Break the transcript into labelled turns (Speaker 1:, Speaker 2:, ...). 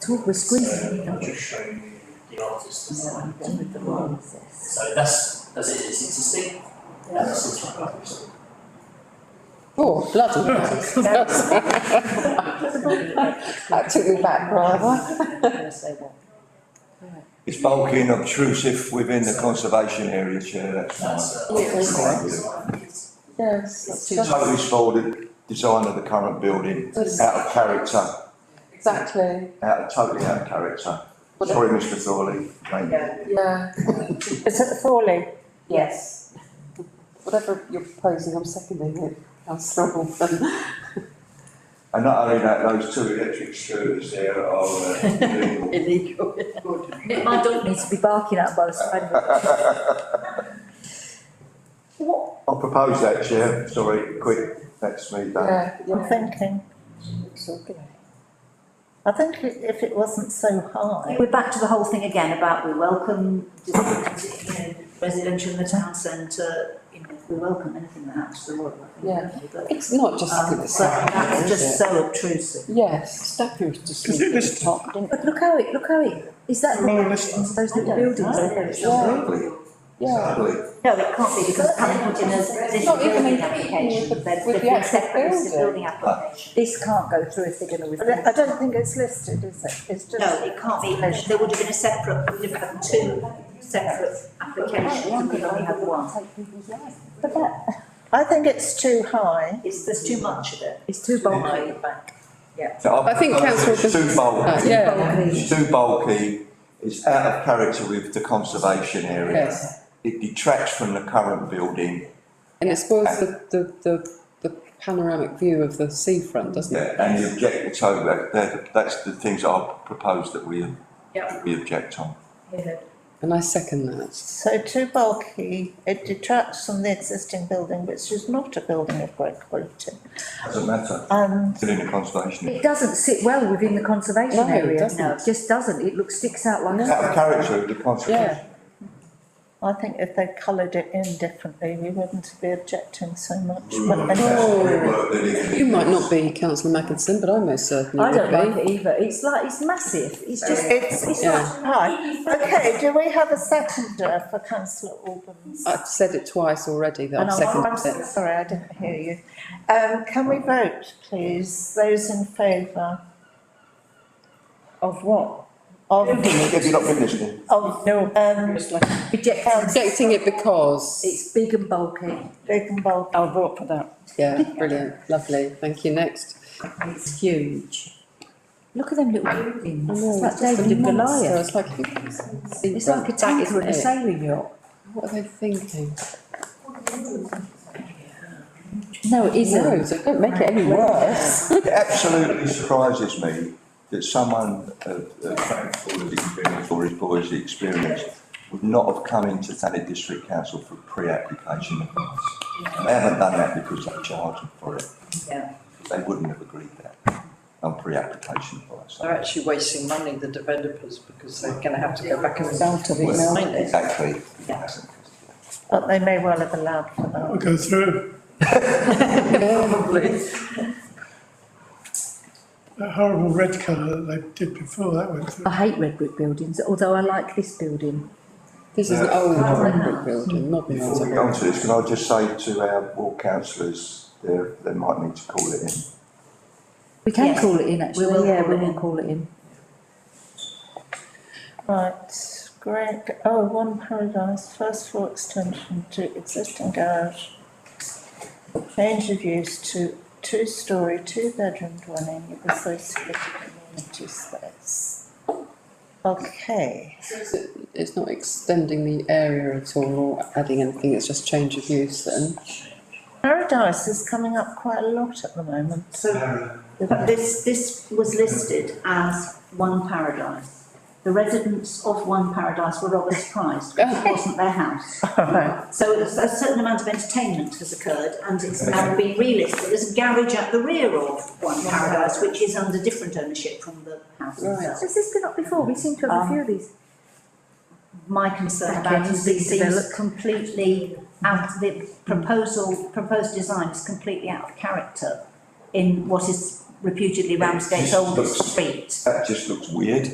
Speaker 1: talk, we're squeezing.
Speaker 2: So I'm just showing you the artist.
Speaker 1: No, I'm done with the roses.
Speaker 2: So that's, that's it, it's existing. And it's just like that.
Speaker 1: Oh, bloody hell. That took me back rather.
Speaker 3: It's bulky and obtrusive within the conservation area, Chair, that's
Speaker 2: That's,
Speaker 3: mine.
Speaker 2: uh,
Speaker 1: Yeah,
Speaker 2: that's
Speaker 3: that's
Speaker 2: right.
Speaker 1: Yes, it's just-
Speaker 3: Totally spoiled the design of the current building, out of character,
Speaker 1: exactly,
Speaker 3: out of, totally out of character. Sorry, Mr Thorley, thank you.
Speaker 1: yeah.
Speaker 4: Is it Thorley?
Speaker 5: Yes.
Speaker 1: Whatever you're proposing, I'm seconding it, councillor Wolfen.
Speaker 3: And not only that, those two electric scooters there are uh, illegal.
Speaker 1: Illegal.
Speaker 4: My dog needs to be barking at by the side of it.
Speaker 3: I'll propose that, Chair, sorry, quick, that's me done.
Speaker 1: Yeah,
Speaker 6: I'm
Speaker 1: yeah.
Speaker 6: thinking. I think i- if it wasn't so high,
Speaker 4: We're back to the whole thing again about we welcome, you know, residential in the town centre, you know, we welcome anything that adds to the world, I think,
Speaker 1: Yeah.
Speaker 4: don't we? But,
Speaker 1: It's not just
Speaker 4: um,
Speaker 1: looking at
Speaker 4: but
Speaker 1: the side,
Speaker 4: that's just
Speaker 1: is it?
Speaker 4: so obtrusive.
Speaker 1: Yes, stuff is just looking at the top, didn't it?
Speaker 4: But look how it, look how it, is that? Those little buildings there.
Speaker 3: It's
Speaker 1: Yeah.
Speaker 3: ugly, it's
Speaker 1: Yeah.
Speaker 3: ugly.
Speaker 4: No, it can't be because it's coming put in as additional
Speaker 1: Not even
Speaker 4: building
Speaker 1: included
Speaker 4: application,
Speaker 1: with-
Speaker 4: they're
Speaker 1: with the
Speaker 4: they're
Speaker 1: actual
Speaker 4: separate, it's a
Speaker 1: building.
Speaker 4: building application.
Speaker 6: this can't go through if they're gonna withdraw. I don't think it's listed, is it? It's
Speaker 4: No, it can't be, there would have been a separate, we'd have had two separate applications, and we only have one.
Speaker 6: But that, I think it's too high.
Speaker 4: It's, there's too much of it.
Speaker 6: It's too
Speaker 4: bulky.
Speaker 3: So I
Speaker 7: I think
Speaker 3: propose
Speaker 7: councillor
Speaker 3: It's too bulky.
Speaker 7: Yeah.
Speaker 3: It's too bulky, it's out of character with the conservation area.
Speaker 7: Yes.
Speaker 3: It detracts from the current building,
Speaker 7: And it spoils the, the, the, the panoramic view of the seafront, doesn't it?
Speaker 3: and the object, so that, that, that's the things I propose that we, we object on.
Speaker 7: And I second that.
Speaker 6: So too bulky, it detracts from the existing building, which is not a building of great quality. Um,
Speaker 3: Doesn't matter,
Speaker 6: And
Speaker 3: still in the conservation. area.
Speaker 4: It doesn't sit well within the
Speaker 7: No,
Speaker 4: conservation
Speaker 7: it
Speaker 4: area,
Speaker 7: doesn't.
Speaker 4: no, it just doesn't, it looks, sticks out like.
Speaker 3: It's out of character with the conservation.
Speaker 6: I think if they coloured it in differently, we wouldn't be objecting so much.
Speaker 3: We
Speaker 6: But
Speaker 3: would
Speaker 6: anyway.
Speaker 3: object, we would, they didn't.
Speaker 7: You might not be councillor Mackinson, but I most certainly
Speaker 4: I don't
Speaker 7: would
Speaker 4: like
Speaker 7: be.
Speaker 4: it either, it's like, it's massive, it's just,
Speaker 6: It's, it's not high. Okay, do we have a seconder for councillor Albans?
Speaker 7: I've said it twice already that
Speaker 6: And
Speaker 7: I've
Speaker 6: I'm- I'm
Speaker 7: seconded
Speaker 6: so
Speaker 7: it.
Speaker 6: sorry, I didn't hear you. Um, can we vote, please? Those in favour? Of what? Of,
Speaker 3: Have you not been listening?
Speaker 6: of, um,
Speaker 4: rejected,
Speaker 7: Rejecting it because,
Speaker 4: it's big and bulky.
Speaker 6: big and bulky.
Speaker 1: I'll vote for that.
Speaker 7: yeah, brilliant, lovely, thank you, next.
Speaker 4: It's huge. Look at them little
Speaker 7: I
Speaker 4: buildings,
Speaker 7: know,
Speaker 4: it's like
Speaker 7: it's just a
Speaker 4: David and
Speaker 7: monster,
Speaker 4: Goliath.
Speaker 7: It's like, you can't see the
Speaker 4: It's like a
Speaker 7: seafront, that
Speaker 4: tanker in a
Speaker 7: isn't it?
Speaker 4: sailing yacht.
Speaker 7: What are they thinking?
Speaker 4: No, it
Speaker 7: No,
Speaker 4: isn't.
Speaker 7: it's a- don't make it any
Speaker 4: worse.
Speaker 3: It absolutely surprises me that someone of, of Frank Fuller's experience or his boy's experience would not have come into Thanet District Council for pre-application advice. And they haven't done that because they charged them for it.
Speaker 4: Yeah.
Speaker 3: They wouldn't have agreed that on pre-application advice.
Speaker 8: They're actually wasting money, the developers, because they're gonna have to go back and
Speaker 1: Out of it
Speaker 3: Well,
Speaker 1: now.
Speaker 3: Exactly.
Speaker 6: But they may well have allowed for that.
Speaker 2: go through,
Speaker 8: probably.
Speaker 2: that horrible red colour that they did before, that went through.
Speaker 4: I hate red brick buildings, although I like this building.
Speaker 7: This is an
Speaker 3: Yeah.
Speaker 7: old brick building, modern.
Speaker 3: Before we go on to this, can I just say to our ward councillors, they, they might need to call it in.
Speaker 4: We can
Speaker 6: Yes.
Speaker 4: call it in,
Speaker 6: We will
Speaker 4: actually, yeah,
Speaker 6: call
Speaker 4: we
Speaker 6: it
Speaker 4: will
Speaker 6: in.
Speaker 4: call it in.
Speaker 6: Right, Greg, oh, One Paradise, first floor extension to existing garage. Change of use to two-storey, two-bedroom dwelling with associated community space. Okay,
Speaker 7: It's not extending the area at all or adding anything, it's just change of use then.
Speaker 6: Paradise is coming up quite a lot at the moment.
Speaker 4: But this, this was listed as One Paradise. The residents of One Paradise were obviously surprised, because it wasn't their house. So a a certain amount of entertainment has occurred, and it's now been relisted. There's a garage at the rear of One Paradise, which is under different ownership from the house itself.
Speaker 5: Has this been up before? We seem to have a few of these.
Speaker 4: My concern about it is it seems completely out, the proposal, proposed design is completely out of character in what is reputedly Ramsgate
Speaker 3: just
Speaker 4: Old
Speaker 3: looks-
Speaker 4: Street.
Speaker 3: That just looks weird.